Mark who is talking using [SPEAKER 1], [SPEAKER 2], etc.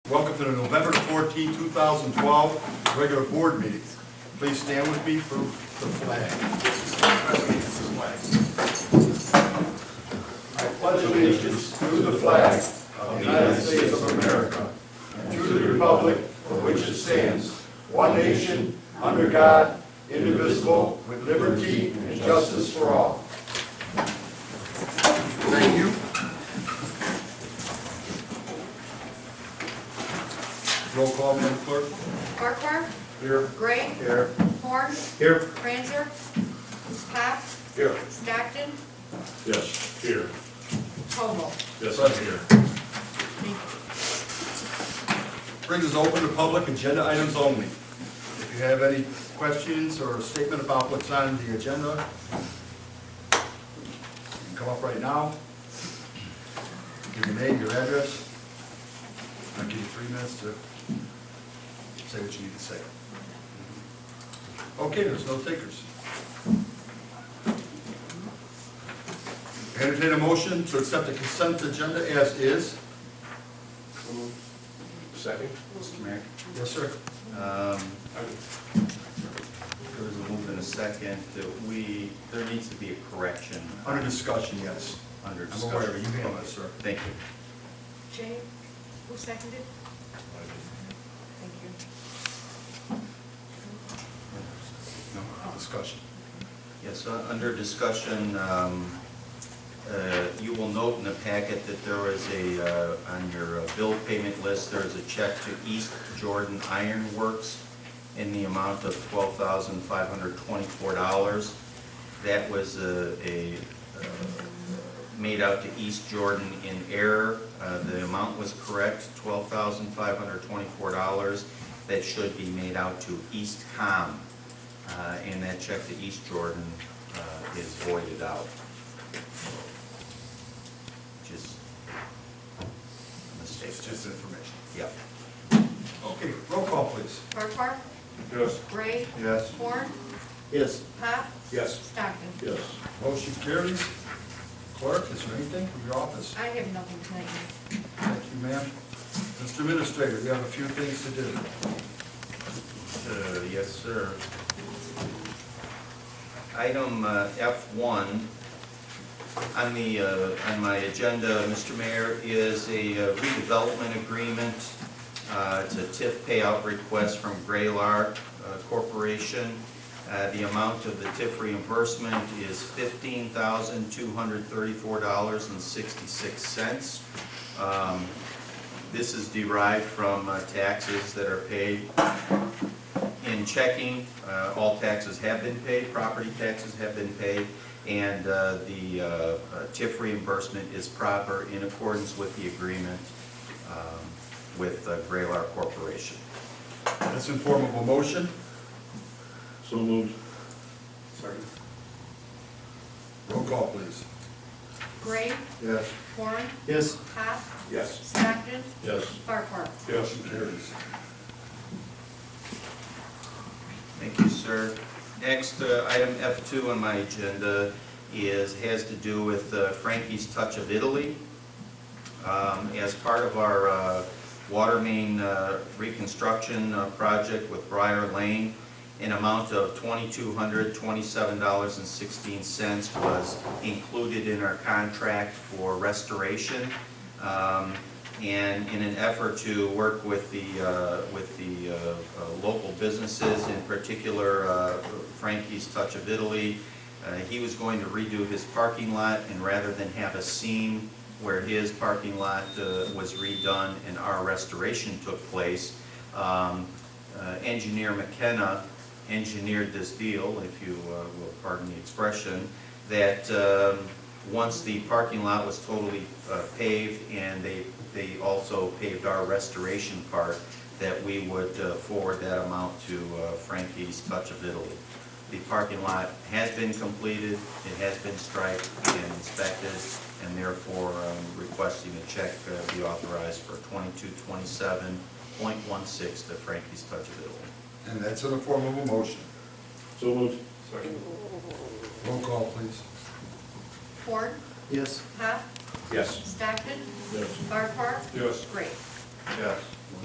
[SPEAKER 1] to the November 14, 2012 regular board meeting. Please stand with me for the flag. I pledge allegiance to the flag of the United States of America and to the republic for which it stands, one nation, under God, indivisible, with liberty and justice for all. Thank you. Roll call, Madam Clerk.
[SPEAKER 2] Farquhar,
[SPEAKER 1] Here.
[SPEAKER 2] Gray,
[SPEAKER 1] Here.
[SPEAKER 2] Horn,
[SPEAKER 1] Here.
[SPEAKER 2] Franzer, Pop,
[SPEAKER 1] Here.
[SPEAKER 2] Stockton,
[SPEAKER 3] Yes, here.
[SPEAKER 2] Koval.
[SPEAKER 3] Yes, I'm here.
[SPEAKER 2] Thank you.
[SPEAKER 1] Brings us open to public agenda items only. If you have any questions or a statement about what's on the agenda, you can come up right now. Give your name, your address. I'll give you three minutes to say what you need to say. Okay, there's no takers. Entertain a motion to accept the consent agenda as is.
[SPEAKER 3] Second?
[SPEAKER 4] Mr. Mayor,
[SPEAKER 1] Yes, sir.
[SPEAKER 4] um, there was a move in a second that we, there needs to be a correction
[SPEAKER 1] Under discussion, yes.
[SPEAKER 4] under
[SPEAKER 1] I'm aware of it. You
[SPEAKER 4] discussion.
[SPEAKER 1] handle it, sir.
[SPEAKER 4] Thank you.
[SPEAKER 2] Jay, who seconded? Thank you.
[SPEAKER 1] No, discussion.
[SPEAKER 4] Yes, uh, under discussion, um, uh, you will note in the packet that there is a, uh, on your uh, bill payment list, there is a check to East Jordan Iron Works in the amount of twelve thousand five hundred twenty-four dollars. That was uh, a, uh, made out to East Jordan in error. Uh, The amount was correct, twelve thousand five hundred twenty-four dollars. That should be made out to East Com. Uh, And that check to East Jordan uh, is voided out. Just a mistake.
[SPEAKER 1] It's just information.
[SPEAKER 4] Yep.
[SPEAKER 1] Okay, roll call, please.
[SPEAKER 2] Farquhar,
[SPEAKER 3] Yes.
[SPEAKER 2] Gray,
[SPEAKER 1] Yes.
[SPEAKER 2] Horn,
[SPEAKER 4] Yes.
[SPEAKER 2] Pop,
[SPEAKER 3] Yes.
[SPEAKER 2] Stockton.
[SPEAKER 3] Yes.
[SPEAKER 1] Motion carries. Clerk, is there anything from your office?
[SPEAKER 2] I have nothing tonight. Mayor.
[SPEAKER 1] Thank you, ma'am. Mr. Administrator, we have a few things to do.
[SPEAKER 4] Uh, Yes, sir. Item uh, F1 on the, uh, on my agenda, Mr. Mayor, is a uh, redevelopment agreement. Uh, It's a TIF payout request from Graylar uh, Corporation. Uh, The amount of the TIF reimbursement is $15,234.66. Um, This is derived from uh, taxes that are paid in checking, uh, all taxes have been paid, property taxes have been paid, and uh, the uh, uh, TIF reimbursement is proper in accordance with the agreement um, with uh, Graylar Corporation.
[SPEAKER 1] That's in form of a motion.
[SPEAKER 3] So moved.
[SPEAKER 1] Roll call, please.
[SPEAKER 2] Gray,
[SPEAKER 1] Yes.
[SPEAKER 2] Horn,
[SPEAKER 1] Yes.
[SPEAKER 2] Pop,
[SPEAKER 3] Yes.
[SPEAKER 2] Stockton,
[SPEAKER 3] Yes.
[SPEAKER 2] Farquhar.
[SPEAKER 3] Yes.
[SPEAKER 1] Motion carries.
[SPEAKER 4] Thank you, sir. Next, uh, item F2 on my agenda is, has to do with uh, Frankie's Touch of Italy. Um, As part of our uh, water main uh, reconstruction uh, project with Briar Lane, an amount of $2,227.16 was included in our contract for restoration. Um, And in an effort to work with the, uh, with the uh, uh, local businesses, in particular uh, Frankie's Touch of Italy, uh, he was going to redo his parking lot, and rather than have a seam where his parking lot uh, was redone and our restoration took place, um, uh, engineer McKenna engineered this deal, if you uh, will pardon the expression, that um, once the parking lot was totally uh, paved and they, they also paved our restoration part, that we would uh, forward that amount to uh, Frankie's Touch of Italy. The parking lot has been completed, it has been striped and inspected, and therefore um, requesting a check uh, be authorized for twenty-two twenty-seven point one six to Frankie's Touch of Italy.
[SPEAKER 1] And that's in the form of a motion.
[SPEAKER 3] So moved. Second.
[SPEAKER 1] Roll call, please.
[SPEAKER 2] Horn,
[SPEAKER 1] Yes.
[SPEAKER 2] Pop,
[SPEAKER 3] Yes.
[SPEAKER 2] Stockton,
[SPEAKER 3] Yes.
[SPEAKER 2] Farquhar,
[SPEAKER 3] Yes.
[SPEAKER 2] Gray.
[SPEAKER 1] Yes.